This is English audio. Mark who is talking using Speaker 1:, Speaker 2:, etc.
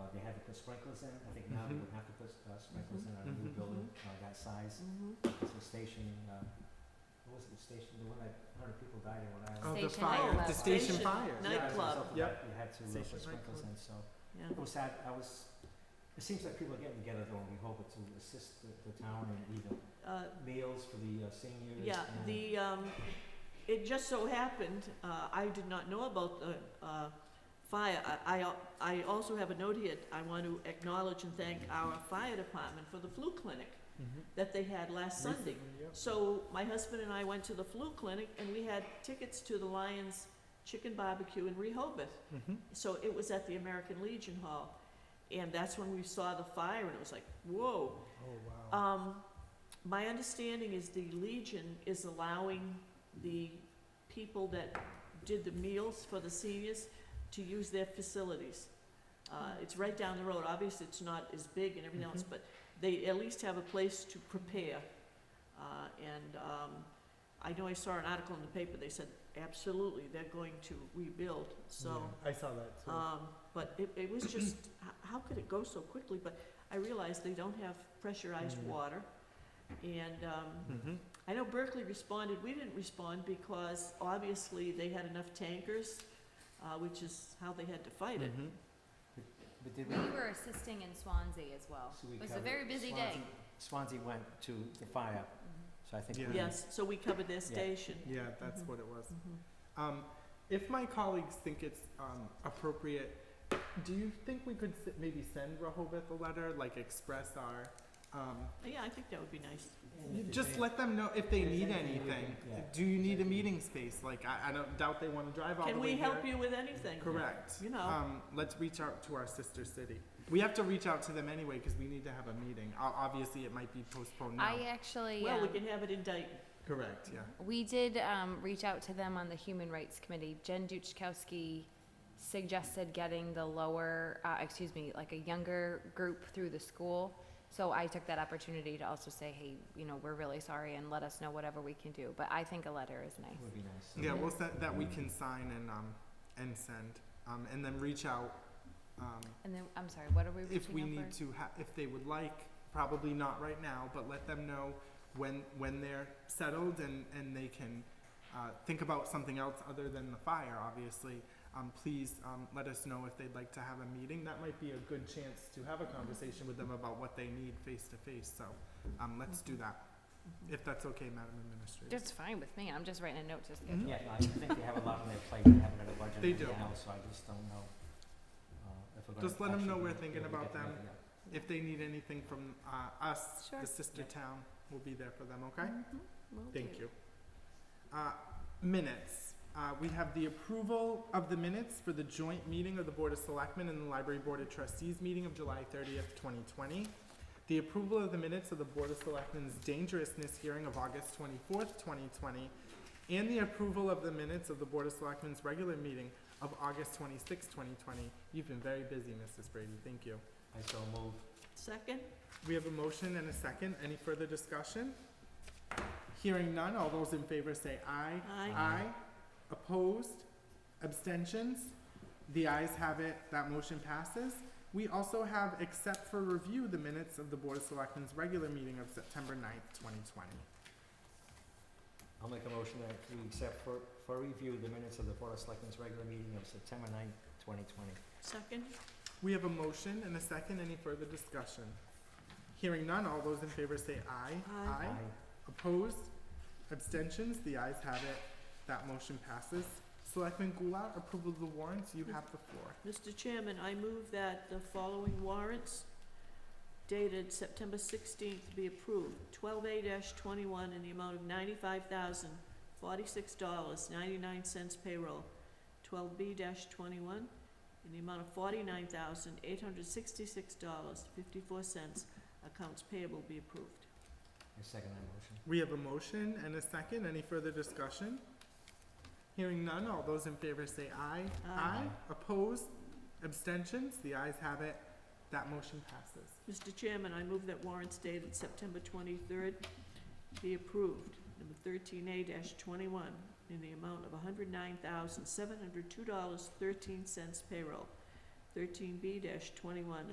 Speaker 1: Uh, the sprinklers in, I think now we
Speaker 2: Mhm.
Speaker 1: would have to put uh, sprinklers in on a new
Speaker 2: Mhm.
Speaker 1: building, uh, that size.
Speaker 3: Mm-hmm.
Speaker 1: It's a station, uh, what was it, the station, the one that, a hundred people died in when I
Speaker 2: Oh,
Speaker 1: was.
Speaker 2: the
Speaker 3: Station
Speaker 2: fire,
Speaker 3: nightclub.
Speaker 2: the station
Speaker 3: Station
Speaker 2: fire.
Speaker 1: Yeah, as a
Speaker 3: nightclub.
Speaker 1: result of
Speaker 2: Yep.
Speaker 1: that, You had to uh,
Speaker 2: Station
Speaker 1: put sprinklers
Speaker 2: nightclub.
Speaker 1: in, so.
Speaker 3: Yeah.
Speaker 1: It was sad, I was, it seems like people are getting together though, and we hope it's to assist the, the town in either
Speaker 3: Uh,
Speaker 1: meals for the uh, seniors.
Speaker 3: yeah,
Speaker 1: and-
Speaker 3: the, um, it just so happened, uh, I did not know about the, uh, fire. I, I, al- I also have a note here, I want to acknowledge and thank our fire department for the flu clinic that they had last Mm-hmm. Sunday.
Speaker 2: Mm-hmm.
Speaker 3: So my husband and I went to the flu clinic and we had tickets to the Lions Chicken Barbecue in Rehoboth.
Speaker 2: Mm-hmm.
Speaker 3: So it was at the American Legion Hall. And that's when we saw the fire and it was like, whoa.
Speaker 2: Oh, wow.
Speaker 3: Um, my understanding is the Legion is allowing the people that did the meals for the seniors to use their facilities. Uh, it's right down the road, obviously it's not as big and everything else,
Speaker 2: Mhm.
Speaker 3: but they at least have a place to prepare. Uh, and, um, I know I saw an article in the paper, they said absolutely, they're going to rebuild, so.
Speaker 2: I saw that too.
Speaker 3: Um, but it, it was just, h- how could it go so quickly? But I realized they don't have pressurized
Speaker 2: Mm.
Speaker 3: water. And, um,
Speaker 2: Mm-hmm.
Speaker 3: I know Berkeley responded, we didn't respond because obviously they had enough tankers, uh, which is how they had to fight it.
Speaker 2: Mm-hmm.
Speaker 1: But did we,
Speaker 4: We were assisting in Swansea as well.
Speaker 1: so we
Speaker 4: It was a
Speaker 1: covered-
Speaker 4: very busy day.
Speaker 1: Swansea- Swansea went to the fire, so I think
Speaker 2: Mm-hmm. Yeah.
Speaker 1: we.
Speaker 3: Yes, so we covered their
Speaker 1: Yeah.
Speaker 3: station.
Speaker 2: Yeah, that's
Speaker 3: Mhm.
Speaker 2: what it was.
Speaker 3: Mhm.
Speaker 2: Um, if my colleagues think it's um, appropriate, do you think we could s- maybe send Rehoboth a letter, like express our, um,
Speaker 3: Yeah, I think that would be nice.
Speaker 1: And if
Speaker 2: just
Speaker 1: they-
Speaker 2: let them know if they
Speaker 1: If
Speaker 2: need
Speaker 1: anything, we
Speaker 2: anything.
Speaker 1: can- yeah.
Speaker 2: Do you need a meeting space? Like, I, I don't doubt they want to drive all the
Speaker 3: Can
Speaker 2: way
Speaker 3: we help
Speaker 2: here.
Speaker 3: you with anything?
Speaker 2: Correct.
Speaker 3: You know.
Speaker 2: Um, let's reach out to our sister city. We have to reach out to them anyway because we need to have a meeting. O- Obviously, it might be postponed now.
Speaker 4: I Mm-hmm. actually,
Speaker 3: Well, we
Speaker 4: um,
Speaker 3: can have it in Dayton.
Speaker 2: Correct, yeah.
Speaker 4: we did um, reach out to them on the Human Rights Committee. Jen Duchkowski suggested getting the lower, uh, excuse me, like a younger group through the school. So I took that opportunity to also say, hey, you know, we're really sorry and let us know whatever we can do. But I think a letter is nice.
Speaker 1: Would be nice.
Speaker 2: Yeah, we'll send, that we can sign and, um, and send, um, and then reach out, um,
Speaker 4: And then, I'm sorry, what are we reaching out
Speaker 2: if
Speaker 4: for?
Speaker 2: we need to ha- if they would like, probably not right now, but let them know when, when they're settled and, and they can, uh, think about something else other than the fire, obviously. Um, please, um, let us know if they'd like to have a meeting. That might be a good chance to have a conversation with them about what they need face to face, so, um, let's do that, if that's okay, Madam Administrator.
Speaker 4: That's fine with me. I'm just writing a note to schedule.
Speaker 2: Mhm.
Speaker 1: Yeah, no, I think they have a lot on their plate, they haven't got a budget
Speaker 2: They
Speaker 1: right
Speaker 2: do.
Speaker 1: now, so I just don't know, uh, if we're gonna.
Speaker 2: Just let 'em
Speaker 1: actually
Speaker 2: know
Speaker 1: be
Speaker 2: we're
Speaker 1: able to
Speaker 2: thinking
Speaker 1: get
Speaker 2: about
Speaker 1: together,
Speaker 2: them.
Speaker 1: yeah.
Speaker 2: If they need anything from uh, us,
Speaker 4: Sure. Mm-hmm.
Speaker 2: the sister
Speaker 1: Yeah.
Speaker 2: town, we'll be there for them, okay?
Speaker 4: Will
Speaker 2: Thank
Speaker 4: do.
Speaker 2: you. Uh, Minutes. Uh, We have the approval of the minutes for the joint meeting of the Board of Selectmen and the Library Board of Trustees meeting of July thirtieth, twenty twenty. The approval of the minutes of the Board of Selectmen's dangerousness hearing of August twenty-fourth, twenty twenty. And the approval of the minutes of the Board of Selectmen's regular meeting of August twenty-sixth, twenty twenty. You've been very busy, Mrs. Brady. Thank you.
Speaker 1: I so move,
Speaker 3: Second?
Speaker 2: We have a motion and a second. Any further discussion? Hearing none, all those in favor say aye.
Speaker 3: Aye.
Speaker 2: Aye. Opposed? Abstentions? The ayes have it. That motion passes. We also have, except for review, the minutes of the Board of Selectmen's regular meeting of September 9th, twenty twenty.
Speaker 1: I'll make a motion that we accept for, for review the minutes of the Board of Selectmen's regular meeting of September ninth, twenty twenty.
Speaker 3: Second?
Speaker 2: We have a motion and a second. Any further discussion? Hearing none, all those in favor say aye.
Speaker 3: Aye.
Speaker 2: Opposed? Abstentions? The ayes have it. That motion passes. Selectman Goulart, approval of the warrants, you have the floor.
Speaker 3: Mr. Chairman, I move that the following warrants dated September sixteenth be approved. Twelve A twenty-one in the amount of ninety-five thousand, forty-six dollars, ninety-nine cents payroll. Twelve B twenty-one in the amount of forty-nine thousand, eight hundred sixty-six dollars, fifty-four cents. Accounts payable be approved.
Speaker 1: I second that motion.
Speaker 2: We have a motion and a second. Any further discussion? Hearing none, all those in favor say aye.
Speaker 3: Aye.
Speaker 2: Opposed? Abstentions? The ayes have it. That motion passes.
Speaker 3: Mr. Chairman, I move that warrants dated September twenty-third be approved. Number thirteen A twenty-one, in the amount of hundred nine thousand, seven hundred two dollars, thirteen cents payroll. Thirteen B twenty-one,